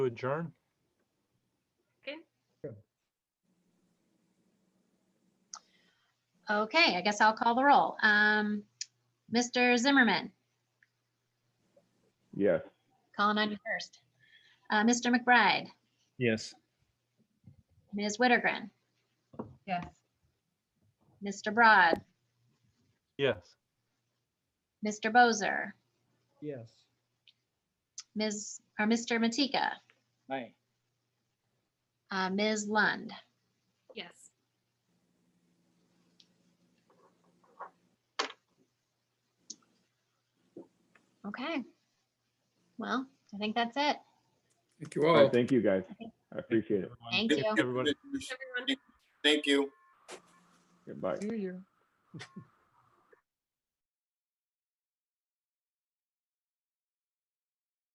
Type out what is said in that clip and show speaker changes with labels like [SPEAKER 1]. [SPEAKER 1] adjourn?
[SPEAKER 2] Okay, I guess I'll call the roll. Um, Mr. Zimmerman,
[SPEAKER 3] Yes.
[SPEAKER 2] calling on you first. Uh, Mr. McBride,
[SPEAKER 4] Yes.
[SPEAKER 2] Ms. Wittergren,
[SPEAKER 5] Yes.
[SPEAKER 2] Mr. Broad,
[SPEAKER 1] Yes.
[SPEAKER 2] Mr. Bozer,
[SPEAKER 6] Yes.
[SPEAKER 2] Ms., or Mr. Matika,
[SPEAKER 6] Aye.
[SPEAKER 2] uh, Ms. Lund.
[SPEAKER 5] Yes.
[SPEAKER 2] Okay. Well, I think that's it.
[SPEAKER 7] Thank you
[SPEAKER 3] All right,
[SPEAKER 7] all.
[SPEAKER 3] thank you, guys. I appreciate it.
[SPEAKER 4] everyone.
[SPEAKER 2] Thank you.
[SPEAKER 1] Everybody.
[SPEAKER 5] Everyone.
[SPEAKER 7] Thank you.
[SPEAKER 3] Goodbye.
[SPEAKER 6] Hear you.